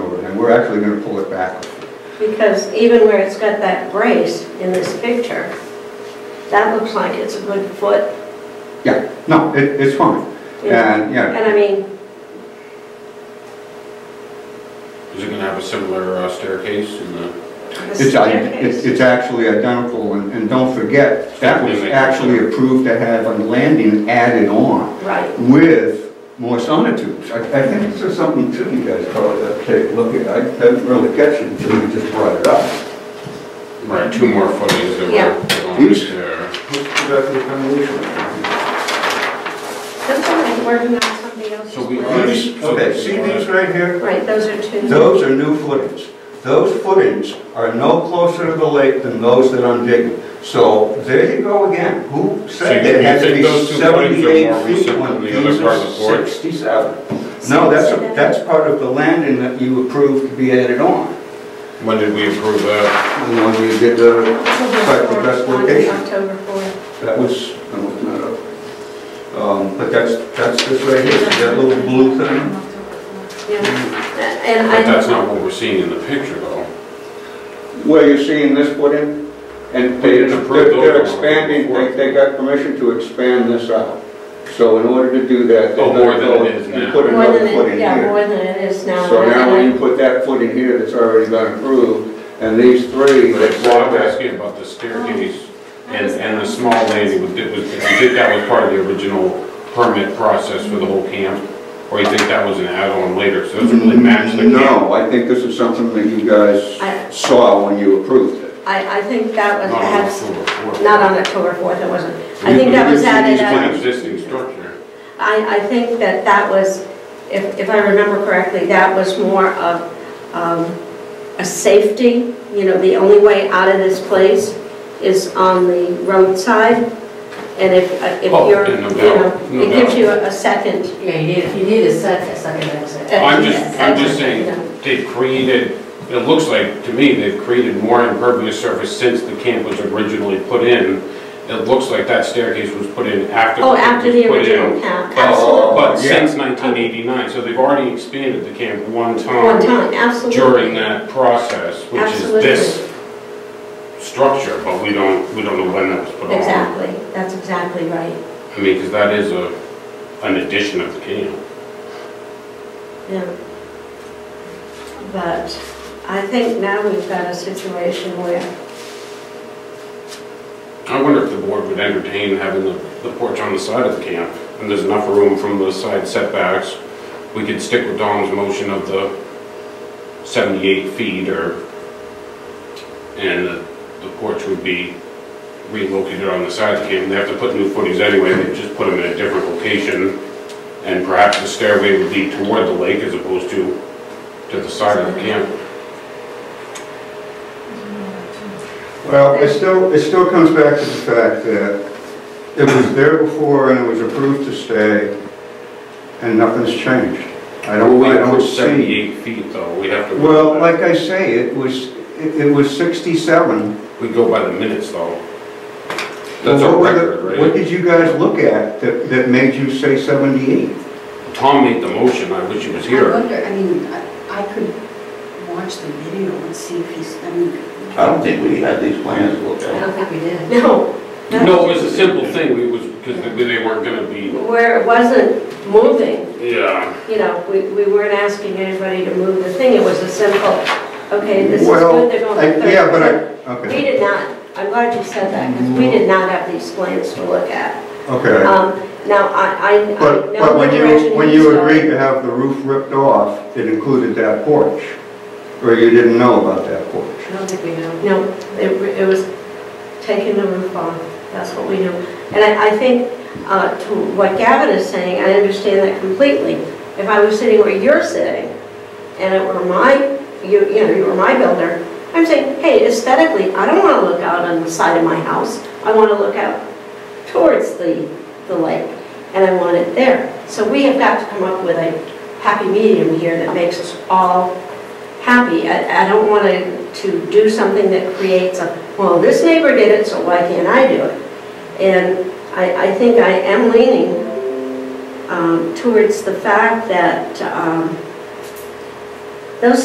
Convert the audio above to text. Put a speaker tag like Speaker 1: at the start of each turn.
Speaker 1: we're actually gonna pull it back.
Speaker 2: Because even where it's got that brace in this picture, that looks like it's a good foot.
Speaker 1: Yeah, no, it, it's fine.
Speaker 2: you know.
Speaker 1: And, yeah,
Speaker 2: And I mean,
Speaker 3: Is it gonna have a similar uh, staircase in the,
Speaker 2: the
Speaker 1: it's, i- it's
Speaker 2: staircase.
Speaker 1: it's actually identical, and, and don't forget, that was actually approved to have a landing added on
Speaker 2: Right,
Speaker 1: with more sonotubes. I, I think this is something too you guys probably have to take a look at. I didn't really catch it until you just brought it up.
Speaker 3: right, two more footings that
Speaker 2: Yeah.
Speaker 3: were going
Speaker 1: Oops.
Speaker 3: there?
Speaker 2: that's all right, working on somebody else's.
Speaker 3: So we
Speaker 2: plan.
Speaker 3: are-
Speaker 1: These, okay, see these right here?
Speaker 2: Right, those are two.
Speaker 1: Those are new footings. Those footings are no closer to the lake than those that I'm digging. So there you go again. Who said
Speaker 3: So you-
Speaker 1: it had to
Speaker 3: you
Speaker 1: be
Speaker 3: think those two footings are more
Speaker 1: 78 feet
Speaker 3: recent
Speaker 1: when
Speaker 3: than
Speaker 1: these
Speaker 3: the other part
Speaker 1: are
Speaker 3: of the board?
Speaker 1: 67? No, that's, a- that's part of the landing that you approved to be added on.
Speaker 3: When did we approve that?
Speaker 1: And when you did the,
Speaker 2: October
Speaker 1: the best
Speaker 2: 4th, on
Speaker 1: location.
Speaker 2: October 4th.
Speaker 1: that was, I'm looking that up. Um, But that's, that's this right here, See that little blue thing.
Speaker 2: Yeah, and
Speaker 3: But that's
Speaker 2: I,
Speaker 3: not what we're seeing in the picture though.
Speaker 1: Where you're seeing this put in? And they-
Speaker 3: We didn't approve
Speaker 1: they're
Speaker 3: those
Speaker 1: they're
Speaker 3: on
Speaker 1: expanding,
Speaker 3: October
Speaker 1: they,
Speaker 3: fourth.
Speaker 1: they got permission to expand this out. So in order to do that,
Speaker 3: Oh,
Speaker 1: they're
Speaker 3: more
Speaker 1: gonna
Speaker 3: than
Speaker 1: go
Speaker 3: it is
Speaker 1: and
Speaker 3: now.
Speaker 1: put
Speaker 2: more
Speaker 1: another
Speaker 2: than,
Speaker 1: foot
Speaker 2: it-
Speaker 1: in
Speaker 2: yeah,
Speaker 1: here.
Speaker 2: more than it is now.
Speaker 1: So
Speaker 2: and
Speaker 1: now
Speaker 2: I-
Speaker 1: when you put that foot in here that's already been approved, and these three
Speaker 3: But
Speaker 1: that
Speaker 3: it's- well, I'm
Speaker 1: that
Speaker 3: asking about the staircase
Speaker 2: Oh.
Speaker 3: and, and the small landing, would- it was, do you think that was part of the original permit process for the whole camp? Or you think that was an add-on later, so it doesn't really match the camp?
Speaker 1: Mm, No, I think this is something that you
Speaker 2: I-
Speaker 1: guys saw when you approved it.
Speaker 2: I, I think that was,
Speaker 3: Not on
Speaker 2: perhaps,
Speaker 3: October fourth.
Speaker 2: not on October 4th, it wasn't. I think that was
Speaker 3: These- these
Speaker 2: added
Speaker 3: were
Speaker 2: as.
Speaker 3: Existing structure.
Speaker 2: I, I think that that was, if, if I remember correctly, that was more of um, a safety, you know, the only way out of this place is on the roadside, and if, if
Speaker 3: Oh,
Speaker 2: you're, you
Speaker 3: no doubt,
Speaker 2: know,
Speaker 3: no
Speaker 2: it gives
Speaker 3: doubt.
Speaker 2: you a second.
Speaker 4: Yeah, you need, you need a set, a second exit.
Speaker 3: I'm just,
Speaker 2: Yes,
Speaker 3: I'm just saying,
Speaker 2: yeah.
Speaker 3: they've created, it looks like, to me, they've created more impervious surface since the camp was originally put in. It looks like that staircase was put in after.
Speaker 2: Oh,
Speaker 3: the camp
Speaker 2: after
Speaker 3: was
Speaker 2: the
Speaker 3: put in.
Speaker 2: original camp,
Speaker 3: But-
Speaker 2: absolutely.
Speaker 3: But
Speaker 1: Yeah.
Speaker 3: since 1989, so they've already expanded the camp one
Speaker 2: One
Speaker 3: time
Speaker 2: time, absolutely.
Speaker 3: during that process, which is
Speaker 2: Absolutely.
Speaker 3: this structure, but we don't, we don't know when that was put on.
Speaker 2: Exactly, that's exactly right,
Speaker 3: I mean, because that is a, an addition of the camp.
Speaker 2: yeah. But I think now we've got a situation where
Speaker 3: I wonder if the board would entertain having the the porch on the side of the camp, and there's enough room from the side setbacks. We could stick with Don's motion of the 78 feet or, and the the porch would be relocated on the side of the camp. They have to put new footings anyway, they just put them in a different location, and perhaps the stairway would lead toward the lake as opposed to, to the side of the camp.
Speaker 1: Well, it still, it still comes back to the fact that it was there before and it was approved to stay, and nothing's changed. I don't,
Speaker 3: We
Speaker 1: I don't
Speaker 3: approve
Speaker 1: see.
Speaker 3: 78 feet though, we have to.
Speaker 1: Well, like I say, it was, it it was 67.
Speaker 3: We go by the minutes though. That's a
Speaker 1: What were the-
Speaker 3: record,
Speaker 1: What
Speaker 3: right?
Speaker 1: did you guys look at that, that made you say 78?
Speaker 3: Tom made the motion, I wish he was
Speaker 5: I
Speaker 3: here.
Speaker 5: wonder, I mean, I I could watch the video and see if he's, I mean,
Speaker 6: I don't think we had these plans looked
Speaker 4: I
Speaker 6: at.
Speaker 4: don't think we did.
Speaker 2: No.
Speaker 3: No, it was a simple thing, we was, because they they weren't gonna be,
Speaker 2: Where it wasn't moving,
Speaker 3: yeah.
Speaker 2: you know, we, we weren't asking anybody to move the thing, it was a simple, okay, this is
Speaker 1: Well,
Speaker 2: good, they're
Speaker 1: I-
Speaker 2: going to
Speaker 1: Yeah,
Speaker 2: third.
Speaker 1: but
Speaker 2: floor.
Speaker 1: I,
Speaker 2: We
Speaker 1: okay,
Speaker 2: did not, I'm glad you said that, because we did not have these plans to look at.
Speaker 1: okay.
Speaker 2: Um, now, I, I, I
Speaker 1: But,
Speaker 2: know
Speaker 1: but
Speaker 2: what
Speaker 1: when
Speaker 2: direction
Speaker 1: you, when
Speaker 2: he's
Speaker 1: you
Speaker 2: going.
Speaker 1: agreed to have the roof ripped off, it included that porch, or you didn't know about that porch?
Speaker 4: I don't think we know.
Speaker 2: No, it, it was taking the roof off, that's what we knew. And I, I think, uh, to what Gavin is saying, I understand that completely. If I was sitting where you're sitting, and it were my, you, you know, you were my builder, I'm saying, hey, aesthetically, I don't wanna look out on the side of my house, I wanna look out towards the, the lake, and I want it there. So we have got to come up with a happy medium here that makes us all happy. I, I don't want to, to do something that creates a, well, this neighbor did it, so why can't I do it? And I, I think I am leaning um, towards the fact that um,